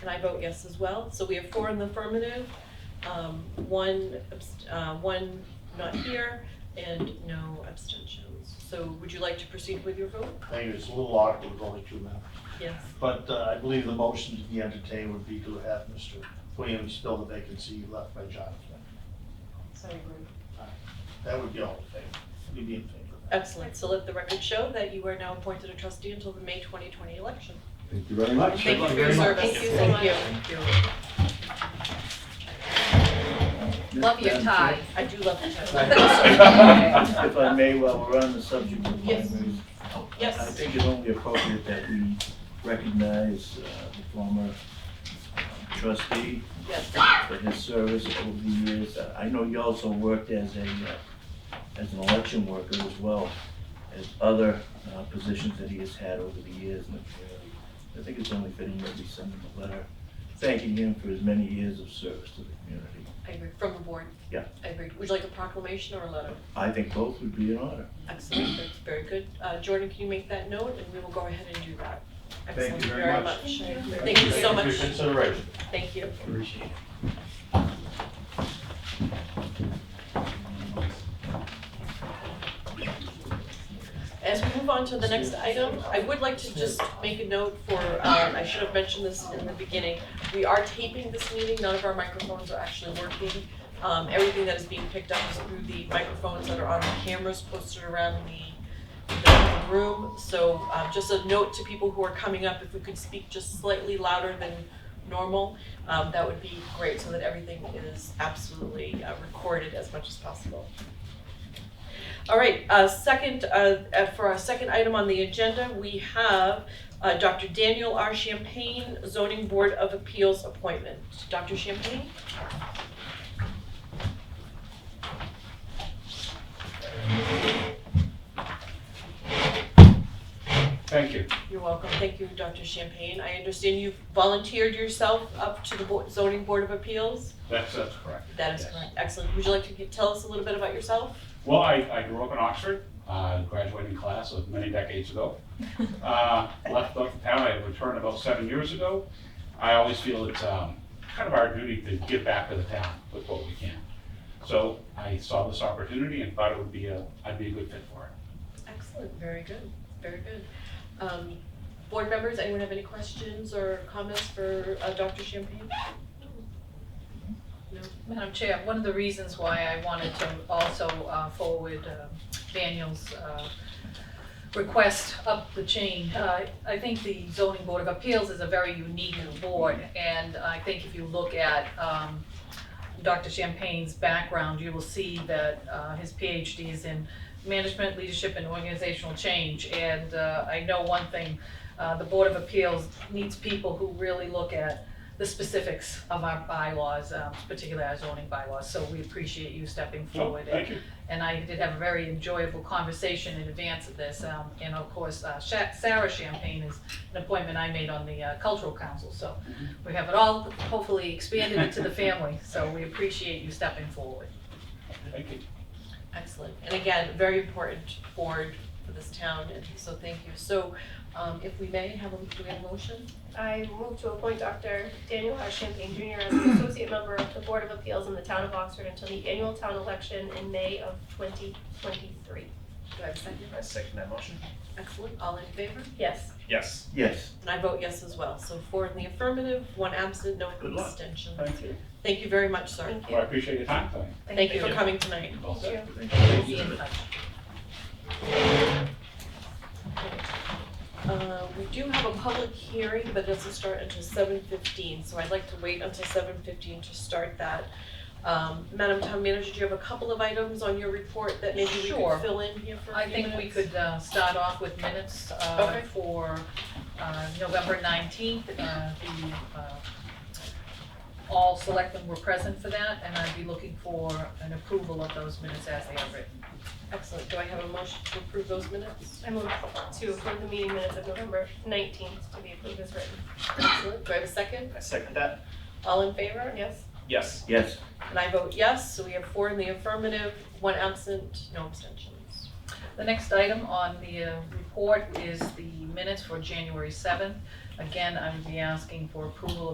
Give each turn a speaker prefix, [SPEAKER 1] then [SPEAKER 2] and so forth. [SPEAKER 1] and I vote yes as well. So we have four in the affirmative, um, one, abst- uh, one not here, and no abstentions. So would you like to proceed with your vote?
[SPEAKER 2] I think it's a little awkward with only two members.
[SPEAKER 1] Yes.
[SPEAKER 2] But uh, I believe the motion to be entertained would be to have Mr. Williams fill the vacancy left by Jonathan.
[SPEAKER 3] So agree.
[SPEAKER 2] That would be all in favor. We'd be in favor of that.
[SPEAKER 1] Excellent. So let the record show that you are now appointed a trustee until the May 2020 election.
[SPEAKER 4] Thank you very much.
[SPEAKER 1] Thank you for your service.
[SPEAKER 3] Thank you so
[SPEAKER 1] Thank you.
[SPEAKER 3] Love your tie.
[SPEAKER 1] I do love the title.
[SPEAKER 5] If I may, while we're on the subject of
[SPEAKER 1] Yes.
[SPEAKER 5] primaries, I
[SPEAKER 1] Yes,
[SPEAKER 5] think it's only appropriate that we recognize uh, the former uh, trustee
[SPEAKER 1] yes.
[SPEAKER 5] for his service over the years. Uh, I know you also worked as a, uh, as an election worker as well as other uh, positions that he has had over the years. And, uh, I think it's only fitting that we send him a letter thanking him for his many years of service to the community.
[SPEAKER 1] I agree. From the board.
[SPEAKER 5] Yeah.
[SPEAKER 1] I agree. Would you like a proclamation or a letter?
[SPEAKER 5] I think both would be in order.
[SPEAKER 1] Excellent, that's very good. Uh, Jordan, can you make that note, and we will go ahead and do that.
[SPEAKER 2] Thank you
[SPEAKER 1] Excellent,
[SPEAKER 2] very much.
[SPEAKER 1] Thank you so
[SPEAKER 2] For
[SPEAKER 1] much,
[SPEAKER 2] your consideration.
[SPEAKER 1] thank you.
[SPEAKER 5] Appreciate it.
[SPEAKER 1] As we move on to the next item, I would like to just make a note for, um, I should have mentioned this in the beginning. We are taping this meeting, none of our microphones are actually working. Um, everything that is being picked up is through the microphones that are on the cameras posted around the, the room. So, um, just a note to people who are coming up, if we could speak just slightly louder than normal, um, that would be great, so that everything is absolutely uh, recorded as much as possible. All right, uh, second, uh, uh, for our second item on the agenda, we have, uh, Dr. Daniel R. Champagne, zoning board of appeals appointment. Dr. Champagne?
[SPEAKER 6] Thank you.
[SPEAKER 1] You're welcome. Thank you, Dr. Champagne. I understand you volunteered yourself up to the Bo- zoning board of appeals?
[SPEAKER 6] That's, that's correct.
[SPEAKER 1] That is
[SPEAKER 6] Yes.
[SPEAKER 1] correct. Excellent. Would you like to g- tell us a little bit about yourself?
[SPEAKER 6] Well, I, I grew up in Oxford, uh, graduating class of many decades ago. Uh, left the town, I returned about seven years ago. I always feel it's, um, kind of our duty to give back to the town with what we can. So I saw this opportunity and thought it would be a, I'd be a good fit for it.
[SPEAKER 1] Excellent. Very good. Very good. Um, board members, anyone have any questions or comments for, uh, Dr. Champagne?
[SPEAKER 3] Madam Chair, one of the reasons why I wanted to also uh, forward um, Daniel's uh, request up the chain, uh, I think the zoning board of appeals is a very unique board. And I think if you look at um, Dr. Champagne's background, you will see that uh, his PhD is in management, leadership, and organizational change. And uh, I know one thing, uh, the board of appeals needs people who really look at the specifics of our bylaws, um, particularly our zoning bylaws, so we appreciate you stepping
[SPEAKER 6] So,
[SPEAKER 3] forward.
[SPEAKER 6] thank you.
[SPEAKER 3] And I did have a very enjoyable conversation in advance of this, um, and of course, uh, Sha- Sarah Champagne is an appointment I made on the uh, cultural council, so we have it all hopefully expanded into the family, so we appreciate you stepping forward.
[SPEAKER 6] Thank you.
[SPEAKER 1] Excellent, and again, very important board for this town, and so thank you. So, um, if we may, have a, do we have a motion?
[SPEAKER 7] I move to appoint Dr. Daniel R. Champagne Jr. as an associate member of the Board of Appeals in the town of Oxford until the annual town election in May of twenty twenty-three.
[SPEAKER 1] Do I have a second?
[SPEAKER 8] I second that motion.
[SPEAKER 1] Excellent, all in favor?
[SPEAKER 7] Yes.
[SPEAKER 8] Yes.
[SPEAKER 5] Yes.
[SPEAKER 1] And I vote yes as well, so four in the affirmative, one absent, no
[SPEAKER 6] Good luck.
[SPEAKER 1] abstentions.
[SPEAKER 6] Thank you.
[SPEAKER 1] Thank you very much, sir.
[SPEAKER 7] Thank
[SPEAKER 6] Well, I
[SPEAKER 7] you.
[SPEAKER 6] appreciate your time, thank
[SPEAKER 1] Thank you for coming tonight.
[SPEAKER 6] you. Well
[SPEAKER 7] Thank you.
[SPEAKER 6] said.
[SPEAKER 3] We'll be in touch.
[SPEAKER 1] Uh, we do have a public hearing, but it doesn't start until seven fifteen, so I'd like to wait until seven fifteen to start that. Um, Madam Town Manager, do you have a couple of items on your report that maybe we
[SPEAKER 3] Sure.
[SPEAKER 1] could fill in here for a
[SPEAKER 3] I
[SPEAKER 1] few
[SPEAKER 3] think we
[SPEAKER 1] minutes?
[SPEAKER 3] could uh, start off with minutes uh,
[SPEAKER 1] Okay.
[SPEAKER 3] for uh, November 19th. Uh, The uh, All selectmen were present for that, and I'd be looking for an approval of those minutes as they are written.
[SPEAKER 1] Excellent, do I have a motion to approve those minutes?
[SPEAKER 7] I move to approve the meeting minutes of November nineteenth to be approved as written.
[SPEAKER 1] Excellent, do I have a second?
[SPEAKER 8] I second that.
[SPEAKER 1] All in favor?
[SPEAKER 7] Yes.
[SPEAKER 8] Yes.
[SPEAKER 5] Yes.
[SPEAKER 1] And I vote yes, so we have four in the affirmative, one absent, no abstentions.
[SPEAKER 3] The next item on the uh, report is the minutes for January 7th. Again, I would be asking for approval of